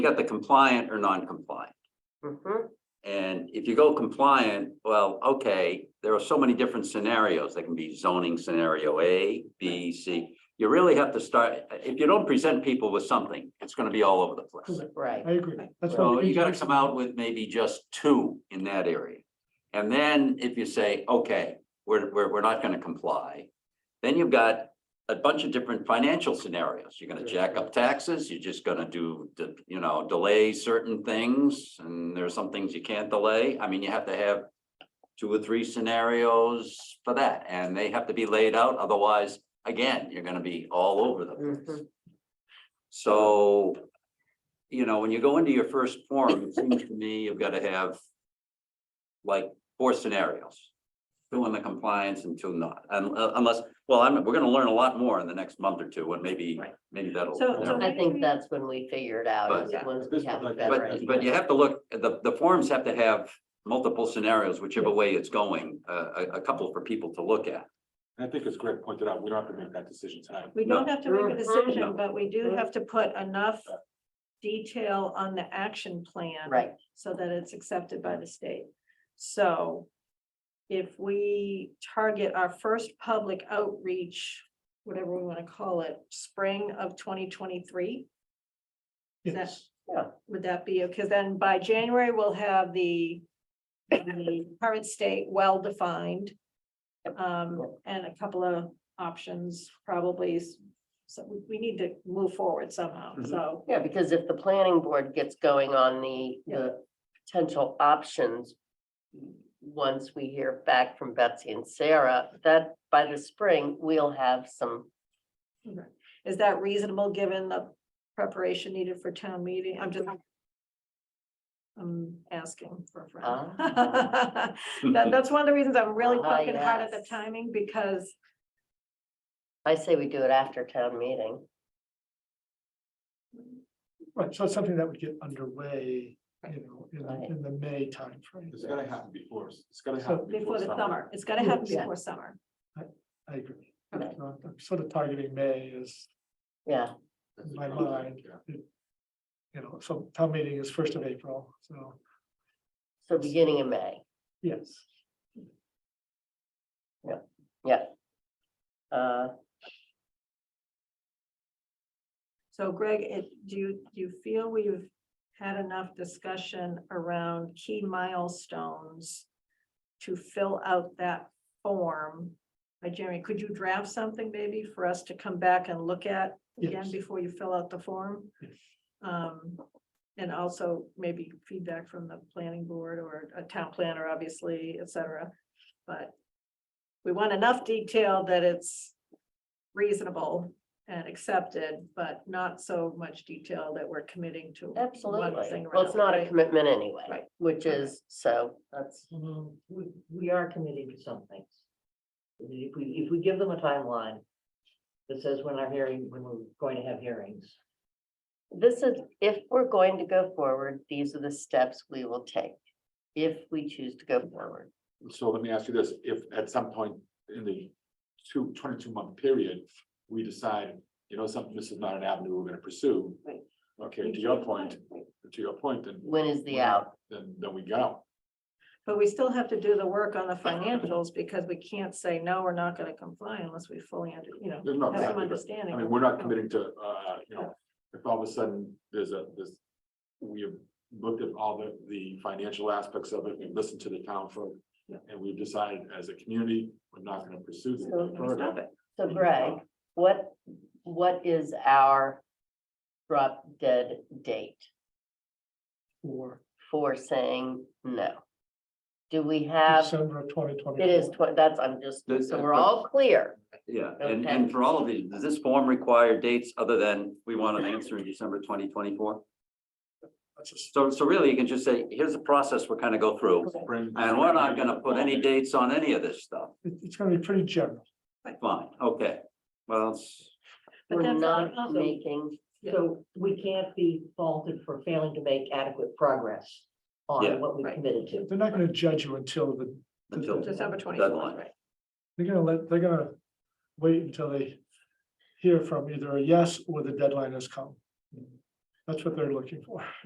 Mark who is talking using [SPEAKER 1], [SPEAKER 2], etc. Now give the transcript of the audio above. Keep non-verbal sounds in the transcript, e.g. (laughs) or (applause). [SPEAKER 1] you got the compliant or non-compliant.
[SPEAKER 2] Mhm.
[SPEAKER 1] And if you go compliant, well, okay, there are so many different scenarios. There can be zoning scenario A, B, C. You really have to start, if you don't present people with something, it's gonna be all over the place.
[SPEAKER 2] Right,
[SPEAKER 3] I agree. That's why.
[SPEAKER 1] So you gotta come out with maybe just two in that area. And then if you say, okay, we're, we're, we're not gonna comply, then you've got a bunch of different financial scenarios. You're gonna jack up taxes, you're just gonna do, the- you know, delay certain things, and there are some things you can't delay. I mean, you have to have two or three scenarios for that, and they have to be laid out, otherwise, again, you're gonna be all over the place.
[SPEAKER 2] Mhm.
[SPEAKER 4] Uh-huh.
[SPEAKER 1] So, you know, when you go into your first form, it seems to me you've gotta have like four scenarios. Two in the compliance and two not, un- uh, unless, well, I'm, we're gonna learn a lot more in the next month or two, and maybe,
[SPEAKER 2] Right.
[SPEAKER 1] maybe that'll.
[SPEAKER 4] So- so
[SPEAKER 2] I think that's when we figure it out, is
[SPEAKER 4] But-
[SPEAKER 2] once we have a better
[SPEAKER 1] But,
[SPEAKER 2] idea.
[SPEAKER 1] but you have to look, the, the forms have to have multiple scenarios, whichever way it's going, a, a, a couple for people to look at.
[SPEAKER 3] I think as Greg pointed out, we don't have to make that decision tonight.
[SPEAKER 4] We
[SPEAKER 1] No.
[SPEAKER 4] don't have to make a
[SPEAKER 2] Mhm.
[SPEAKER 4] decision, but we do have to put enough detail on the action plan.
[SPEAKER 2] Right,
[SPEAKER 4] So that it's accepted by the state. So if we target our first public outreach, whatever we want to call it, spring of twenty twenty-three,
[SPEAKER 3] Yes,
[SPEAKER 4] would that be, because then by January, we'll have the the current state well-defined. Um, and a couple of options probably, s- so we, we need to move forward somehow,
[SPEAKER 3] Mhm.
[SPEAKER 4] so.
[SPEAKER 2] yeah, because if the planning board gets going on the, the potential options. Once we hear back from Betsy and Sarah, that by the spring, we'll have some,
[SPEAKER 4] Is that reasonable, given the preparation needed for town meeting? I'm just. I'm asking for a friend. Um. (laughs) That, that's one of the reasons I'm really
[SPEAKER 2] Ah,
[SPEAKER 4] poking hard at the
[SPEAKER 2] yes.
[SPEAKER 4] timing, because,
[SPEAKER 2] I say we do it after town meeting.
[SPEAKER 3] right, so it's something that would get underway, you know, in,
[SPEAKER 2] Right.
[SPEAKER 3] the- in the May timeframe.
[SPEAKER 5] It's gonna happen before, it's gonna
[SPEAKER 3] So-
[SPEAKER 5] happen.
[SPEAKER 4] before the summer, it's gonna happen
[SPEAKER 2] Yeah.
[SPEAKER 4] before summer.
[SPEAKER 3] I agree.
[SPEAKER 2] Okay.
[SPEAKER 3] So I'm sort of targeting May as,
[SPEAKER 2] Yeah,
[SPEAKER 5] That's
[SPEAKER 3] My
[SPEAKER 5] the problem,
[SPEAKER 3] mind.
[SPEAKER 5] yeah.
[SPEAKER 3] you know, so town meeting is first of April, so,
[SPEAKER 2] so beginning of May,
[SPEAKER 3] yes.
[SPEAKER 2] yeah. Uh,
[SPEAKER 4] So Greg, it, do you, do you feel we've had enough discussion around key milestones to fill out that form? By Jeremy, could you draft something maybe for us to come back and look at again
[SPEAKER 3] Yes.
[SPEAKER 4] before you fill out the form?
[SPEAKER 3] Yes.
[SPEAKER 4] Um, and also maybe feedback from the planning board or a town planner, obviously, et cetera. But we want enough detail that it's reasonable and accepted, but not so much detail that we're committing to. one
[SPEAKER 2] Absolutely.
[SPEAKER 4] thing
[SPEAKER 2] Well, it's
[SPEAKER 4] or
[SPEAKER 2] not a
[SPEAKER 4] another,
[SPEAKER 2] commitment
[SPEAKER 4] Right.
[SPEAKER 2] anyway, which
[SPEAKER 4] Okay.
[SPEAKER 2] is, so that's,
[SPEAKER 6] Mm, We, we are committing to some things. I mean, If we, if we give them a timeline that says when our hearing, when we're going to have hearings,
[SPEAKER 2] this is, if we're going to go forward, these are the steps we will take. If we choose to go forward.
[SPEAKER 5] So let me ask you this, if at some point in the two, 22 month period, we decide, you know, something, this is not an avenue we're gonna pursue.
[SPEAKER 4] Right.
[SPEAKER 5] Okay, to your point, to your point, then,
[SPEAKER 2] When is the
[SPEAKER 5] Right.
[SPEAKER 2] out?
[SPEAKER 5] then, then we go.
[SPEAKER 4] But we still have to do the work on the financials because we can't say, no, we're not gonna comply unless we fully under, you know,
[SPEAKER 5] There's not
[SPEAKER 4] have some
[SPEAKER 5] exactly, but
[SPEAKER 4] understanding.
[SPEAKER 5] I mean, we're not committing to, uh, you know, if all of a sudden there's a, this. We have looked at all the, the financial aspects of it, we've listened to the town folk.
[SPEAKER 4] Yeah.
[SPEAKER 5] And we've decided as a community, we're not gonna pursue this
[SPEAKER 2] So-
[SPEAKER 1] (laughs)
[SPEAKER 5] further.
[SPEAKER 4] Stop it.
[SPEAKER 2] So
[SPEAKER 5] Mhm.
[SPEAKER 2] Greg, what, what is our drop dead date
[SPEAKER 3] For
[SPEAKER 2] for saying no? Do we have,
[SPEAKER 3] December of twenty twenty.
[SPEAKER 2] Uh, it is, twen- that's, I'm just,
[SPEAKER 1] This-
[SPEAKER 2] so we're all clear.
[SPEAKER 1] Yeah, and,
[SPEAKER 2] Okay.
[SPEAKER 1] and for all of these, does this form require dates other than we want an answer in December twenty twenty-four? So, so really, you can just say, here's the process we're kind of go through,
[SPEAKER 5] Bring-
[SPEAKER 1] and we're not gonna put any dates on any of this stuff.
[SPEAKER 3] It's gonna be pretty general.
[SPEAKER 1] Fine, okay, well, it's.
[SPEAKER 4] But
[SPEAKER 2] We're
[SPEAKER 4] that's
[SPEAKER 2] not
[SPEAKER 4] awesome.
[SPEAKER 2] making,
[SPEAKER 4] Yeah.
[SPEAKER 6] so we can't be faulted for failing to make adequate progress
[SPEAKER 1] Yeah.
[SPEAKER 6] on what we
[SPEAKER 4] Right.
[SPEAKER 6] committed to.
[SPEAKER 3] They're not gonna judge you until the,
[SPEAKER 1] until
[SPEAKER 4] December twenty-fourth,
[SPEAKER 1] Deadline.
[SPEAKER 4] right?
[SPEAKER 3] they're gonna let, they're gonna wait until they hear from either a yes or the deadline has come. That's what they're looking for.